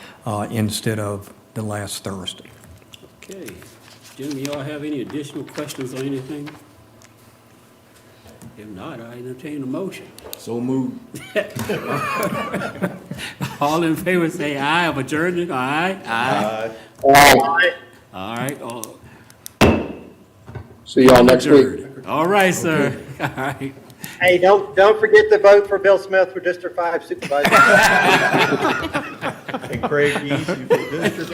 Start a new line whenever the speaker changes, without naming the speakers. uh, instead of the last Thursday.
Okay. Gentlemen, y'all have any additional questions or anything? If not, I entertain a motion.
So moved.
All in favor, say aye of adjournment, aye? Aye. All right, all
See y'all next week.
adjourned. All right, sir. All right.
Hey, don't, don't forget to vote for Bill Smith for District Five Supervisor.
And Craig East, you for district